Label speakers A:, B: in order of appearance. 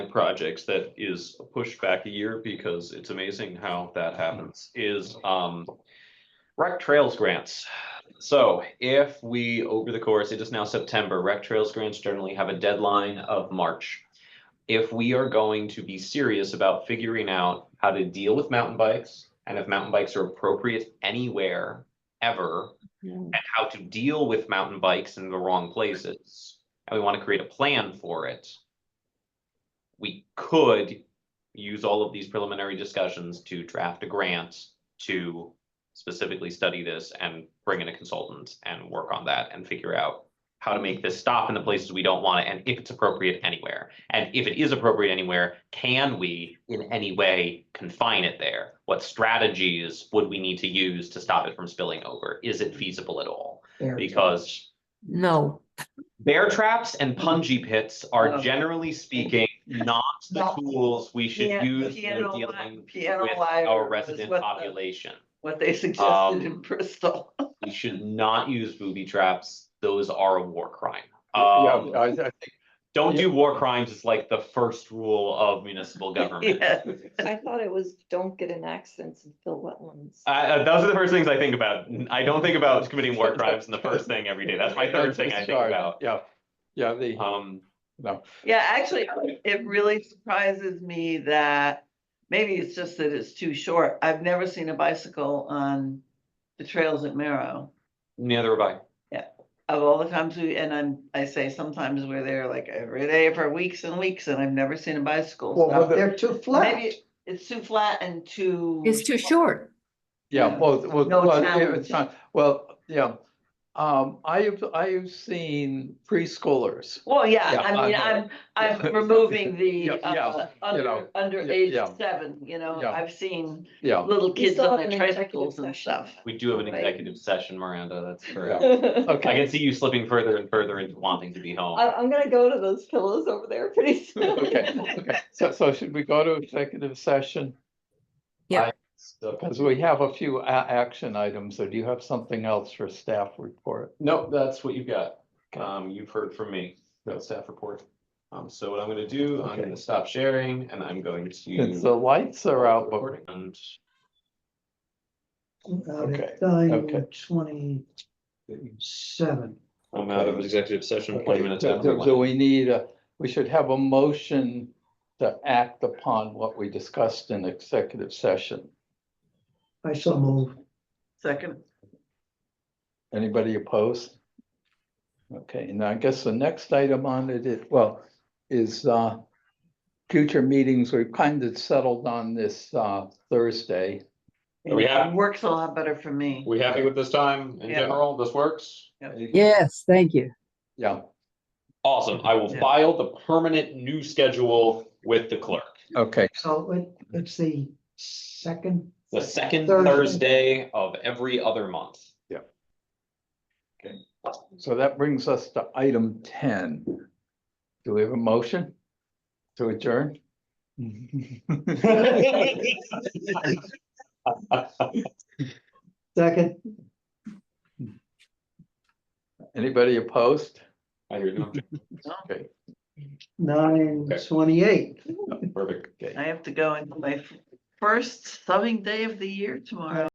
A: projects that is pushed back a year because it's amazing how that happens is um. Rec Trails grants. So if we, over the course, it is now September, Rec Trails grants generally have a deadline of March. If we are going to be serious about figuring out how to deal with mountain bikes and if mountain bikes are appropriate anywhere ever
B: Mm.
A: and how to deal with mountain bikes in the wrong places, and we want to create a plan for it, we could use all of these preliminary discussions to draft a grant to specifically study this and bring in a consultant and work on that and figure out how to make this stop in the places we don't want it and if it's appropriate anywhere. And if it is appropriate anywhere, can we in any way confine it there? What strategies would we need to use to stop it from spilling over? Is it feasible at all?
C: Bear
A: Because
B: No,
A: bear traps and punji pits are
C: Oh.
A: generally speaking not the
C: Not-
A: tools we should
C: Pian-
A: use when
C: piano li-
A: dealing
C: piano
A: with
C: lyre
A: our
C: is
A: resident
C: what the-
A: population.
C: What they
A: Um,
C: suggested in Bristol.
A: We should not use booby traps. Those are a war crime.
D: Yeah,
A: Um,
D: I, I think,
A: don't
D: yeah.
A: do war crimes is like the first rule of municipal government.
C: Yes.
B: I thought it was don't get in accidents and fill wetlands.
A: I- I- those are the first things I think about. I don't think about committing war crimes in the first thing every day. That's my third thing I think
D: Sorry,
A: about.
D: Yeah, yeah, the,
A: Um,
D: no,
C: Yeah, actually, it really surprises me that, maybe it's just that it's too short. I've never seen a bicycle on the trails at Marrow.
A: neither have I.
C: Of all the times we, and I'm, I say sometimes we're there like every day for weeks and weeks and I've never seen a bicycle.
D: Well,
C: So
D: whether-
E: They're too flat.
C: Maybe it's too flat and too.
B: It's too short.
D: yeah, well, well,
C: No
D: well, it-
C: challenge.
D: it's not, well, yeah. Um, I have, I have seen preschoolers.
C: Well, yeah,
D: Yeah,
C: I mean,
D: I know.
C: I'm,
D: Yeah.
C: I'm removing
D: Yeah,
C: the,
D: yeah,
C: uh,
D: you know,
C: under, under
D: yeah,
C: age
D: yeah.
C: seven, you know,
D: Yeah.
C: I've seen
D: Yeah,
C: little kids
B: still
C: on
B: have
C: their
B: an executive
C: tricycles and
B: session.
C: stuff.
A: We do have an
B: Right.
A: executive session, Miranda. That's correct.
B: I,
A: I
D: okay,
A: can see you slipping further and further into wanting to be
D: Uh,
A: home.
B: I'm gonna go to those pillows over there pretty soon.
D: okay, okay. So, so should we go to executive session?
A: So-
D: Because we have a few a- action items, or do you have something else for staff report?
A: No, that's what you've got.
D: Okay.
A: Um, you've heard from me, that staff report. Um, so what I'm gonna do, I'm
D: Okay.
A: gonna stop sharing and I'm going to.
D: Since the lights are out, but
A: Recording and
D: Okay, okay.
E: Nine twenty-seven.
A: I'm out of executive session,
D: Okay,
A: twenty minutes.
D: do-
A: after
D: Do
A: lunch.
D: do we need a, we should have a motion to act upon what we discussed in executive session.
E: I so move.
C: Second,
D: Anybody opposed? Okay, and I guess the next item on it is, well, is uh. Future meetings, we've kind of settled on this uh Thursday. Oh,
A: Are we
C: yeah,
A: happy?
C: works a lot better for me.
A: We happy with this time in
C: Yeah.
A: general? This works?
E: Yes, thank you.
D: Yeah,
A: Awesome. I will
C: Yeah.
A: file the permanent new schedule with the clerk.
D: okay,
E: So it, it's the second,
A: The second
E: Thursday.
A: Thursday of every other month.
D: so that brings us to item ten. Do we have a motion to adjourn?
E: second,
D: Anybody opposed?
A: I hear you.
D: Okay,
E: nine twenty-eight.
A: Perfect.
D: okay.
C: I have to go into my f- first subbing day of the year tomorrow.